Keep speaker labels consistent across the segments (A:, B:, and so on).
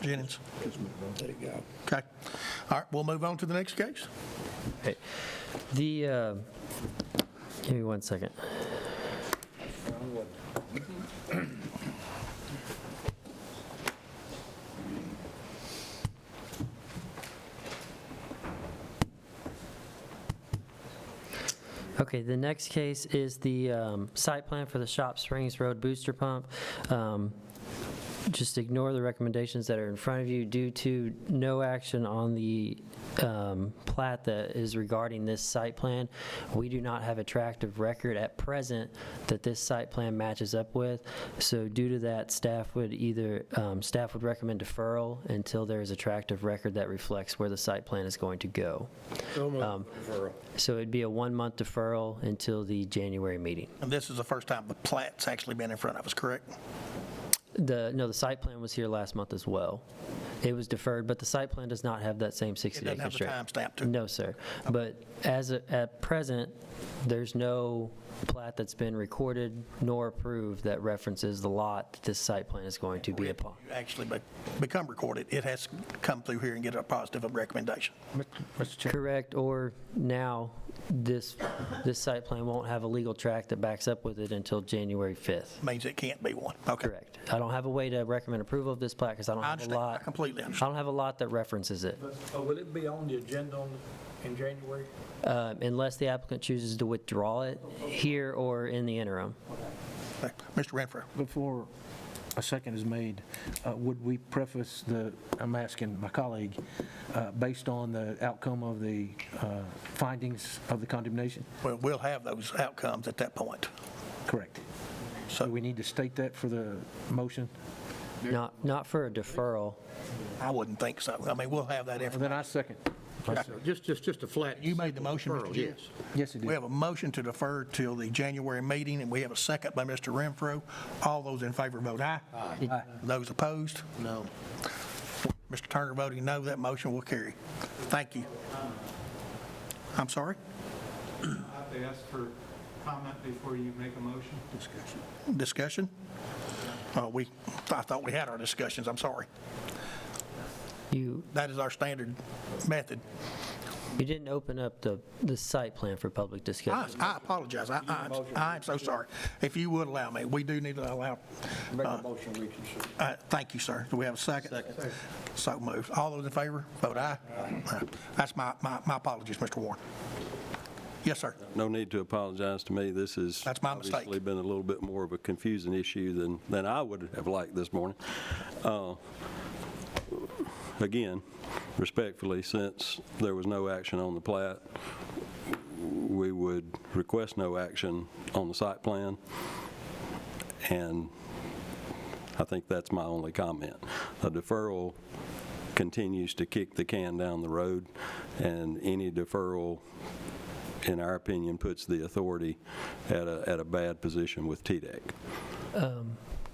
A: Jennings.
B: There you go.
A: Okay. All right, we'll move on to the next case.
C: Right. The, uh, give me one second. Okay, the next case is the um, site plan for the Shop Springs Road Booster Pump. Um, Just ignore the recommendations that are in front of you due to no action on the um, plat that is regarding this site plan. We do not have a tract of record at present that this site plan matches up with. So due to that, staff would either, um, staff would recommend deferral until there is a tract of record that reflects where the site plan is going to go. Um, So it'd be a one-month deferral until the January meeting.
A: And this is the first time the plat's actually been in front of us, correct?
C: The, no, the site plan was here last month as well. It was deferred, but the site plan does not have that same
A: It
C: 60-day
A: doesn't have the
C: constraint.
A: timestamp to it.
C: No, sir. But as, of- at present, there's no plat that's been recorded nor approved that references the lot that this site plan is going to be upon.
A: Actually be- become recorded. It has to come through here and get a positive recommendation.
D: Mr. Chair,
C: Correct, or now, this, this site plan won't have a legal track that backs up with it until January 5th.
A: Means it can't be one. Okay.
C: Correct. I don't have a way to recommend approval of this plat because I don't
A: I
C: have a
A: understand. I
C: lot.
A: completely
C: I
A: understand.
C: don't have a lot that references it,
E: But will it be on the agenda on- in January?
C: um, unless the applicant chooses to withdraw it here or in the interim.
A: Okay. Mr. Renfro.
D: before a second is made, uh, would we preface the, I'm asking my colleague, uh, based on the outcome of the uh, findings of the condemnation?
A: Well, we'll have those outcomes at that point.
D: Correct.
A: So
D: Do we need to state that for the motion?
C: Not, not for a deferral.
A: I wouldn't think so. I mean, we'll have that
D: Well,
A: information.
D: Then I second.
E: Just, just, just a flat.
A: You made the motion, Mr.
E: Referral,
A: Jennings?
E: yes.
D: Yes, it
A: We
D: is.
A: have a motion to defer till the January meeting, and we have a second by Mr. Renfro. All those in favor vote aye. Aye. Those opposed? No. Mr. Turner voting no, that motion will carry. Thank you. I'm sorry?
F: I have to ask for comment before you make a motion.
A: Discussion? Uh, We, I thought we had our discussions, I'm sorry.
C: You,
A: That is our standard method.
C: you didn't open up the, the site plan for public
A: I
C: discussion.
A: I apologize, I- I, I'm so sorry. If you would allow me, we do need to allow
E: Make a motion, reconsider.
A: Uh, Thank you, sir. Do we have a second? Second. So moved. All those in favor, vote aye. Aye. That's my, my my apologies, Mr. Warren. Yes, sir.
G: No need to apologize to me. This has
A: That's my mistake.
G: Obviously been a little bit more of a confusing issue than, than I would have liked this morning. Uh, Again, respectfully, since there was no action on the plat, we would request no action on the site plan. And I think that's my only comment. A deferral continues to kick the can down the road, and any deferral in our opinion, puts the authority at a, at a bad position with E TDEC.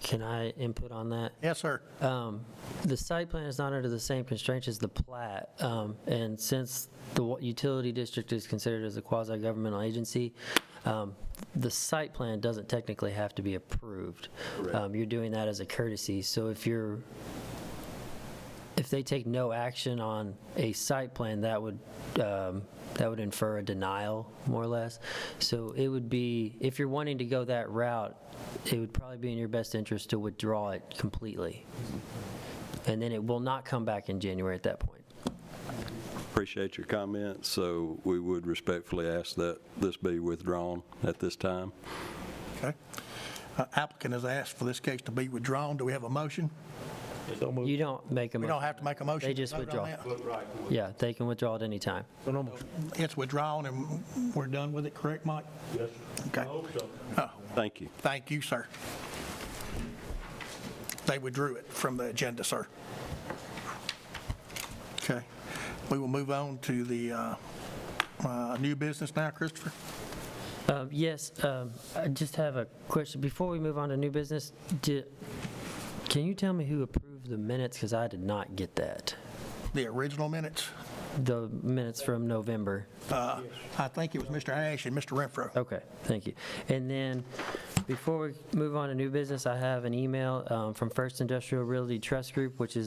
C: Can I input on that?
A: Yes, sir.
C: Um, The site plan is not under the same constraints as the plat, um, and since the wa- utility district is considered as a quasi-governmental agency, um, the site plan doesn't technically have to be approved. Um, You're doing that as a courtesy, so if you're, if they take no action on a site plan, that would, um, that would infer a denial, more or less. So it would be, if you're wanting to go that route, it would probably be in your best interest to withdraw it completely. And then it will not come back in January at that point.
G: Appreciate your comments, so we would respectfully ask that this be withdrawn at this time.
A: Okay. Uh, Applicant has asked for this case to be withdrawn. Do we have a motion?
C: You don't make a
A: We don't
C: motion.
A: have to make a motion.
C: They just
A: to vote on
C: withdraw. Yeah, they can withdraw at any time.
D: So no motion.
A: that. It's withdrawn, and we're done with it, correct, Mike?
H: Yes, I
A: Okay.
H: hope so.
A: Oh,
G: Thank you.
A: Thank you, sir. They withdrew it from the agenda, sir. Okay. We will move on to the uh, uh, new business now, Christopher.
C: Um, Yes, um, I just have a question. Before we move on to new business, di- can you tell me who approved the minutes? Because I did not get that.
A: The original minutes,
C: The minutes from November.
A: uh, I think it was Mr. Ash and Mr. Renfro.
C: Okay, thank you. And then, before we move on to new business, I have an email um, from First Industrial Realty Trust Group, which is